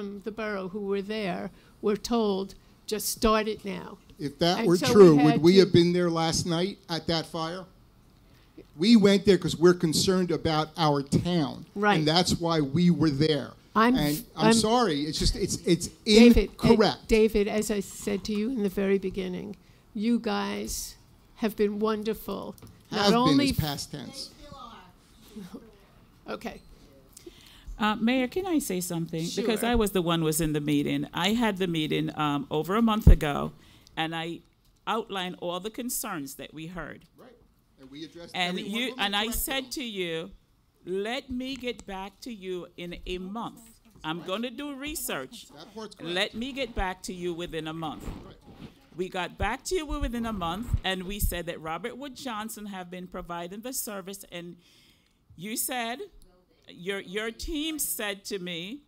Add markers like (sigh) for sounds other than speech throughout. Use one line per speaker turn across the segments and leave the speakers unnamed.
from the borough who were there were told, just start it now.
If that
And
were
so we
true, would
had
we
to-
have been there last night at that fire? We went there because we're concerned about our town.
Right.
And that's why we were there.
I'm-
And I'm
I'm-
sorry, it's just, it's, it's
David, uh,
incorrect.
David, as I said to you in the very beginning, you guys have been wonderful.
Have
Not
been
only,
is past tense.
okay,
Uh, Mayor, can I say something? Because
Sure.
I was the one was in the meeting. I had the meeting um, over a month ago, and I outlined all the concerns that we heard.
Right. And we addressed
And
every one
you
of them
and I
correctly.
said to you, let me get back to you in a month. I'm going to do research.
That part's correct.
Let me get back to you within a month. We got back to you within a month, and we said that Robert Wood Johnson have been providing the service, and you said, your, your team said to me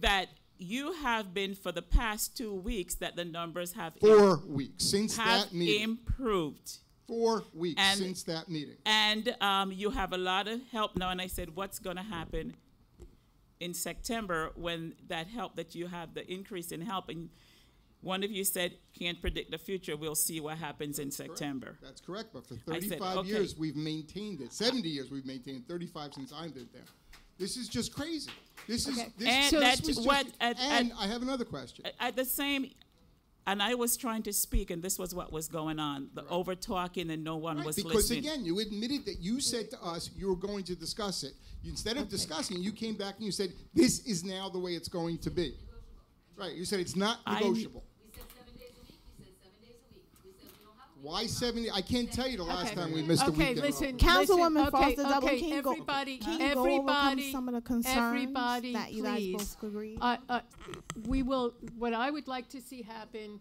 that you have been for the past two weeks that the numbers have,
Four weeks, since
have
that meeting.
improved.
Four weeks
And-
since that meeting.
And um, you have a lot of help now. And I said, what's going to happen in September when that help that you have, the increase in help? And one of you said, can't predict the future. We'll see what happens in September.
That's correct, but for
I said,
35
okay.
years, we've maintained it. 70 years, we've maintained 35 since I've been there. This is just crazy. This is,
Okay.
this,
And
this
that's
was just-
what- at-
and
at-
I have another question.
At the same, and I was trying to speak, and this was what was going on the over talking, and no one
Right,
was
because
listening.
again, you admitted that you said to us you were going to discuss it. You- Instead of discussing, you came back and you said this is now the way it's going to be. Right? You said it's not
I-
negotiable.
We said seven days a week, we said seven days a week, we said we don't have a week.
Why seventy? I can't tell you the last
Okay.
time we missed a
okay,
weekend.
listen.
Councilwoman
listen, okay,
Foster Dublin
okay,
King go-
everybody,
King go over
everybody,
some of the concerns
everybody,
that you guys
please.
both agreed?
Uh, uh, we will. What I would like to see happen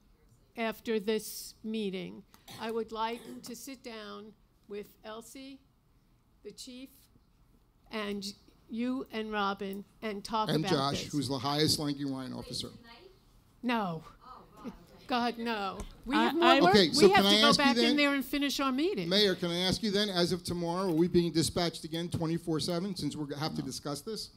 after this meeting, I would like to sit down with Elsie, the chief, and you and Robin, and talk
And
about
Josh,
this.
who's the highest ranking Ryan officer.
no. God no! We
I-
have more
I-
work.
Okay, so
we have
can I
to go
ask you
back
then-
in there and finish our meeting.
Mayor, can I ask you then, as of tomorrow, are we being dispatched again twenty-four seven since we have to discuss this?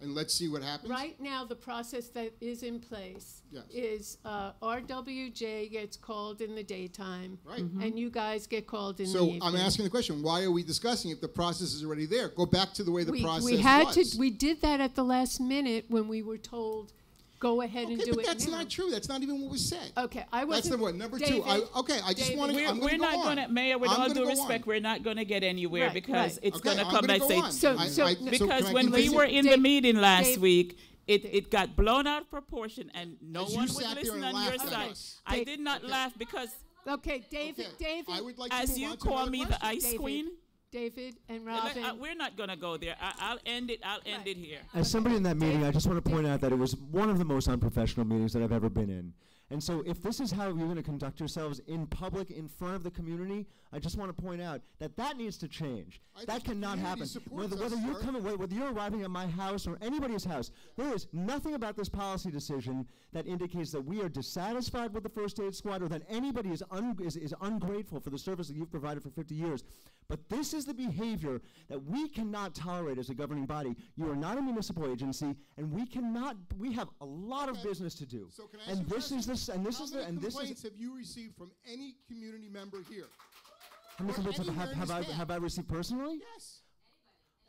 And let's see what happens.
Right now, the process that is in place
Yes.
is uh, RWJ gets called in the daytime.
Right. Mhm.
And you guys get called in the
So
evening.
I'm asking the question: Why are we discussing if the process is already there? Go back to the way the
We-
process
We had
was.
to, we did that at the last minute when we were told, go ahead and
Okay,
do it
but that's
now."
not true. That's not even what was said.
Okay, I wasn't.
That's number one. Number two, I,
David,
okay, I just
David,
want to.
We're,
I'm
we're
gonna
not
go
going to,
on.
Mayor, with
I'm
all
gonna
due
go
respect,
on.
we're not going to get anywhere
Right,
because
right.
it's
Okay,
going to
I'm
come
gonna
back
go
say,
on.
So-
I-
so-
I-
no-
can
Because
I
when we
continue?
were in the
Dave-
meeting last
Dave-
week, it, it got blown out of proportion and no
As you
one was
sat there and
listening on your
laughed at
side.
us.
I
Dave-
did not laugh because
Okay, David,
Okay,
David.
I would like to
as
move
you
on to another
call me the
question.
ice
David,
queen,
David and
let-
Robin.
uh, we're not gonna go there. I, I'll end it, I'll end it here.
As somebody in that meeting, I just want to point out that it was one of the most unprofessional meetings that I've ever been in. And so, if this is how you're going to conduct yourselves in public, in front of the community, I just want to point out that that needs to change.
I think
that
the
cannot
community
happen.
supports
Whether,
us,
whether you're
sir.
coming, whe- whether you're arriving at my house or anybody's house, there is nothing about this policy decision that indicates that we are dissatisfied with the first aid squad or that anybody is, un- is, is ungrateful for the service that you've provided for 50 years. But this is the behavior that we cannot tolerate as a governing body. You are not a municipal agency, and we cannot. We have a lot of business to do.
So can I ask you
and
a
this is
question?
this, and this
How
is
many
the, and this
complaints
is.
have you received from any community member here?
How many
or
complaints have,
anywhere
have,
in
have I
this town?
have I received personally?
Yes.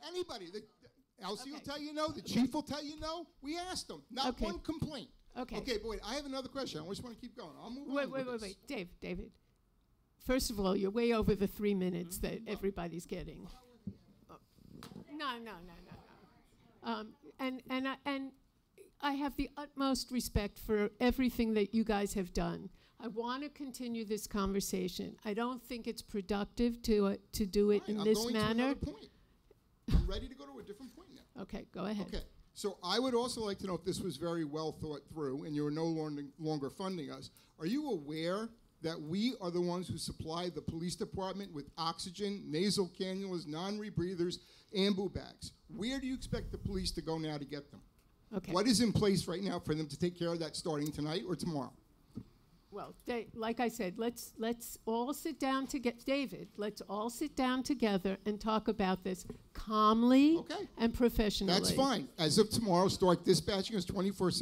Anybody. The, the- Elsie will
Okay.
tell you no. The chief will tell you no. We asked them. Not
Okay.
one complaint.
Okay.
Okay, but wait. I have another question. I just want to keep going. I'll move
Wait,
on.
wait,
with
wait,
this.
wait, Dave, David. First of all, you're way over the three minutes that
Mm-hmm.
everybody's getting. No, no, no, no, no. Um, and and I, and I have the utmost respect for everything that you guys have done. I want to continue this conversation. I don't think it's productive to uh, to do it
All right,
in
I'm
this
going To
manner.
another
(laughs)
point. I'm ready to go to a different point now.
Okay, go ahead.
Okay. So I would also like to know if this was very well thought through and you are no longer, longer funding us. Are you aware that we are the ones who supply the police department with oxygen, nasal cannulas, non rebreathers, ambu bags? Where do you expect the police to go now to get them?
Okay.
What is in place right now for them to take care of that starting tonight or tomorrow?
Well, they, like I said, let's, let's all sit down to get, David, let's all sit down together and talk about this calmly
Okay.
and professionally.
That's fine. As of tomorrow, start dispatching us 24